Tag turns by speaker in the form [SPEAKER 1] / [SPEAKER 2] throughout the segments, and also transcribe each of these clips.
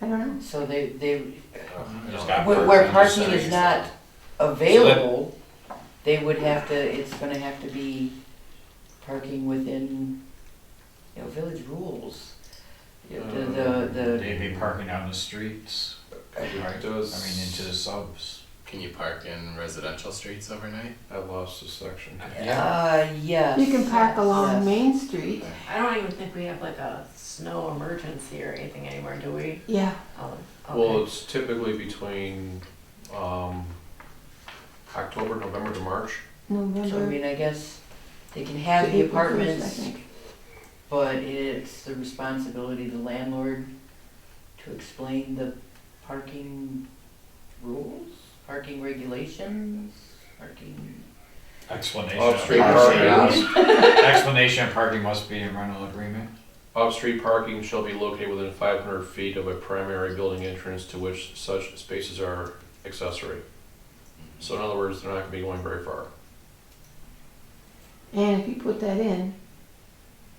[SPEAKER 1] I don't know.
[SPEAKER 2] So they, they,
[SPEAKER 3] Just got
[SPEAKER 2] where, where
[SPEAKER 3] just
[SPEAKER 2] parking is
[SPEAKER 3] saying
[SPEAKER 2] not
[SPEAKER 3] stuff.
[SPEAKER 2] available, they would have to, it's gonna have to be parking within, you know, village rules. You know, The, the,
[SPEAKER 4] They'd be parking out in the streets, right?
[SPEAKER 5] Does-
[SPEAKER 4] I mean, into the subs.
[SPEAKER 3] Can you park in residential streets overnight?
[SPEAKER 5] I lost a section.
[SPEAKER 2] the, uh, yes.
[SPEAKER 1] You can park along
[SPEAKER 2] yes.
[SPEAKER 1] Main Street.
[SPEAKER 6] I don't even think we have like a snow emergency or anything anymore, do we?
[SPEAKER 1] Yeah.
[SPEAKER 6] Oh,
[SPEAKER 5] Well,
[SPEAKER 6] okay.
[SPEAKER 5] it's typically between, um, October, November to March.
[SPEAKER 2] So I
[SPEAKER 1] November.
[SPEAKER 2] mean, I guess they can have the
[SPEAKER 1] April first, I
[SPEAKER 2] apartments,
[SPEAKER 1] think.
[SPEAKER 2] but it's the responsibility of the landlord to explain the parking rules, parking regulations, parking.
[SPEAKER 4] Explanation. of
[SPEAKER 5] Off-street
[SPEAKER 4] parking.
[SPEAKER 5] parking,
[SPEAKER 4] Explanation of parking must be in rental agreement.
[SPEAKER 5] off-street parking shall be located within five hundred feet of a primary building entrance to which such spaces are accessory. So in other words, they're not gonna be going very far.
[SPEAKER 1] And if you put that in,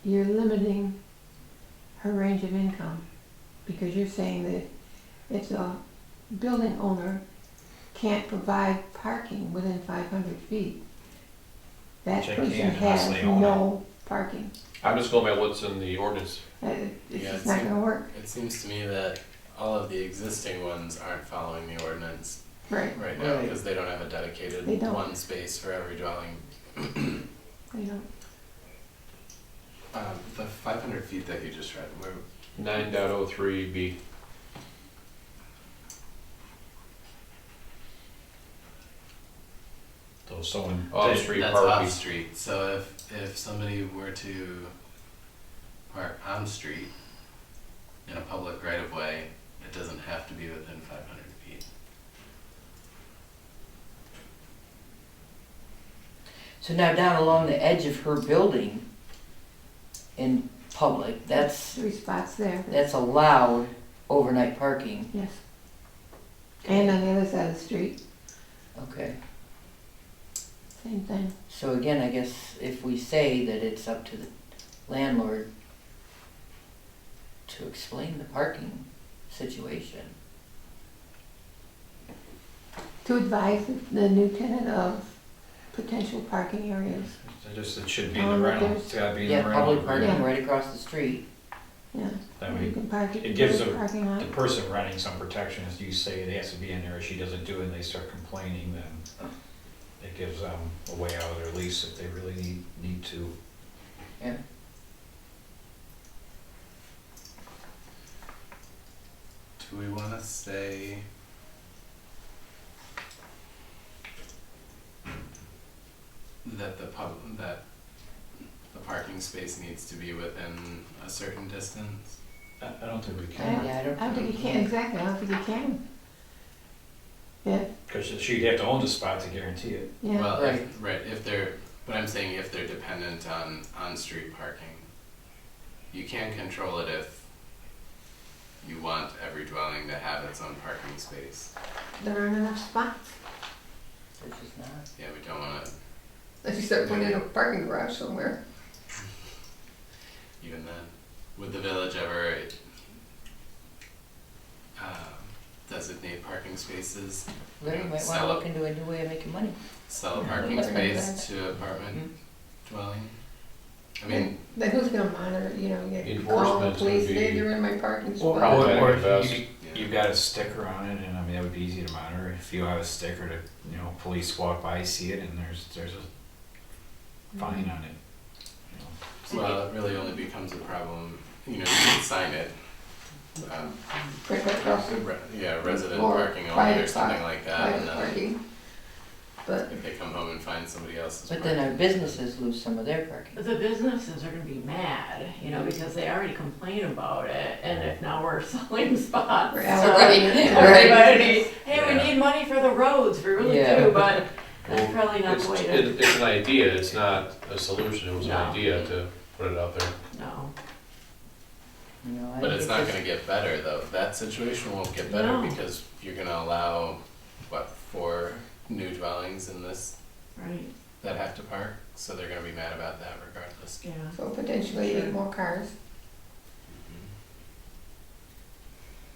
[SPEAKER 1] you're limiting her range of income because you're saying that if the building owner can't provide parking within five hundred feet, that
[SPEAKER 4] Which they
[SPEAKER 1] person
[SPEAKER 4] can't unless
[SPEAKER 1] has
[SPEAKER 4] they own
[SPEAKER 1] no parking.
[SPEAKER 5] I'm just going by what's in the ordinance.
[SPEAKER 1] Uh, It's
[SPEAKER 3] Yeah,
[SPEAKER 1] just
[SPEAKER 3] it's-
[SPEAKER 1] not gonna work.
[SPEAKER 3] It seems to me that all of the existing ones aren't following the ordinance
[SPEAKER 1] Right.
[SPEAKER 3] right now
[SPEAKER 2] Right.
[SPEAKER 3] because they don't have a dedicated
[SPEAKER 1] They don't.
[SPEAKER 3] one space for every dwelling.
[SPEAKER 1] You know,
[SPEAKER 3] Um, the 500 feet that you just read, where,
[SPEAKER 5] Nine point oh three B.
[SPEAKER 4] So someone,
[SPEAKER 5] Off-street.
[SPEAKER 4] they-
[SPEAKER 5] Street
[SPEAKER 3] that's
[SPEAKER 5] parking.
[SPEAKER 3] off street. So if if somebody were to park on street in a public right of way, it doesn't have to be within 500 feet.
[SPEAKER 2] So now down along the edge of her building in public, that's,
[SPEAKER 1] three spots there.
[SPEAKER 2] that's allowed overnight parking.
[SPEAKER 1] Yes. And on the other side of the street,
[SPEAKER 2] Okay,
[SPEAKER 1] same thing.
[SPEAKER 2] so again, I guess if we say that it's up to the landlord to explain the parking situation.
[SPEAKER 1] To advise the new tenant of potential parking areas.
[SPEAKER 4] they just, it should be in the
[SPEAKER 1] Um,
[SPEAKER 4] rental,
[SPEAKER 1] there's-
[SPEAKER 4] it's gotta be in
[SPEAKER 2] Yeah,
[SPEAKER 4] the rental
[SPEAKER 2] public parking
[SPEAKER 4] agreement.
[SPEAKER 2] right across the street.
[SPEAKER 1] Yeah.
[SPEAKER 4] That
[SPEAKER 1] You
[SPEAKER 4] way,
[SPEAKER 1] can park it.
[SPEAKER 4] it gives
[SPEAKER 1] in the
[SPEAKER 4] a-
[SPEAKER 1] Parking lot.
[SPEAKER 4] the person renting some protection, if you say it has to be in there, she doesn't do it, and they start complaining, then it gives them a way out of their lease if they really need, need to.
[SPEAKER 3] Do we want to say? That the pub, that the parking space needs to be within a certain distance?
[SPEAKER 4] I, I don't think we
[SPEAKER 1] Yeah.
[SPEAKER 4] can,
[SPEAKER 2] Yeah, I don't.
[SPEAKER 1] I don't think you can, exactly, I don't think you can. Yeah,
[SPEAKER 4] cause she'd have to own the spot to guarantee it.
[SPEAKER 1] yeah,
[SPEAKER 3] Well, if, right, if they're, but I'm saying if they're dependent on on-street parking, you can control it if you want every dwelling to have its own parking space.
[SPEAKER 1] there aren't enough spots.
[SPEAKER 2] Which is not.
[SPEAKER 3] Yeah, we don't wanna,
[SPEAKER 1] If you start putting in a parking garage somewhere.
[SPEAKER 3] even then, would the village ever, um, designate parking spaces,
[SPEAKER 2] Larry you might wanna look into a new way of making money.
[SPEAKER 3] sell a
[SPEAKER 4] Yeah.
[SPEAKER 3] parking space to apartment dwelling? I mean,
[SPEAKER 1] Then who's gonna monitor, you know, you gotta call the
[SPEAKER 5] Enforcement's gonna
[SPEAKER 1] police, hey,
[SPEAKER 5] be-
[SPEAKER 1] you're in my parking
[SPEAKER 4] Or,
[SPEAKER 1] spot.
[SPEAKER 5] Probably
[SPEAKER 4] or
[SPEAKER 5] better
[SPEAKER 4] if
[SPEAKER 5] to
[SPEAKER 4] you,
[SPEAKER 3] invest.
[SPEAKER 4] you've got a sticker on it, and I mean, that would be easy to monitor, if you have a sticker to, you know, police walk by, see it, and there's, there's a fine on it. you know.
[SPEAKER 3] well, it really only becomes a problem, you know, you can sign it, um,
[SPEAKER 1] Right across the
[SPEAKER 3] Re- Yeah, resident
[SPEAKER 1] Or
[SPEAKER 3] parking only or
[SPEAKER 1] private
[SPEAKER 3] something like that,
[SPEAKER 1] private
[SPEAKER 3] and then
[SPEAKER 1] parking. But,
[SPEAKER 3] if they come home and find somebody else's
[SPEAKER 2] But
[SPEAKER 3] parking.
[SPEAKER 2] then our businesses lose some of their parking.
[SPEAKER 6] But the businesses are gonna be mad, you know, because they already complain about it, and if now we're selling spots.
[SPEAKER 1] Right,
[SPEAKER 6] so
[SPEAKER 2] right,
[SPEAKER 6] Everybody, hey, we
[SPEAKER 5] Yeah.
[SPEAKER 6] need money for the roads, we really
[SPEAKER 2] Yeah.
[SPEAKER 6] do, but
[SPEAKER 5] Well,
[SPEAKER 6] that's probably not
[SPEAKER 5] It's,
[SPEAKER 6] the way to,
[SPEAKER 5] it- it's an idea, it's not a solution, it was an
[SPEAKER 6] No.
[SPEAKER 5] idea to put it out there.
[SPEAKER 6] no.
[SPEAKER 2] You know, I
[SPEAKER 3] But it's
[SPEAKER 2] think
[SPEAKER 3] not gonna get better though, that situation won't get better
[SPEAKER 6] No.
[SPEAKER 3] because you're gonna allow, what, four new dwellings in this
[SPEAKER 6] Right,
[SPEAKER 3] that have to park? So they're gonna be mad about that regardless.
[SPEAKER 6] yeah.
[SPEAKER 1] so potentially
[SPEAKER 6] Sure.
[SPEAKER 1] more cars.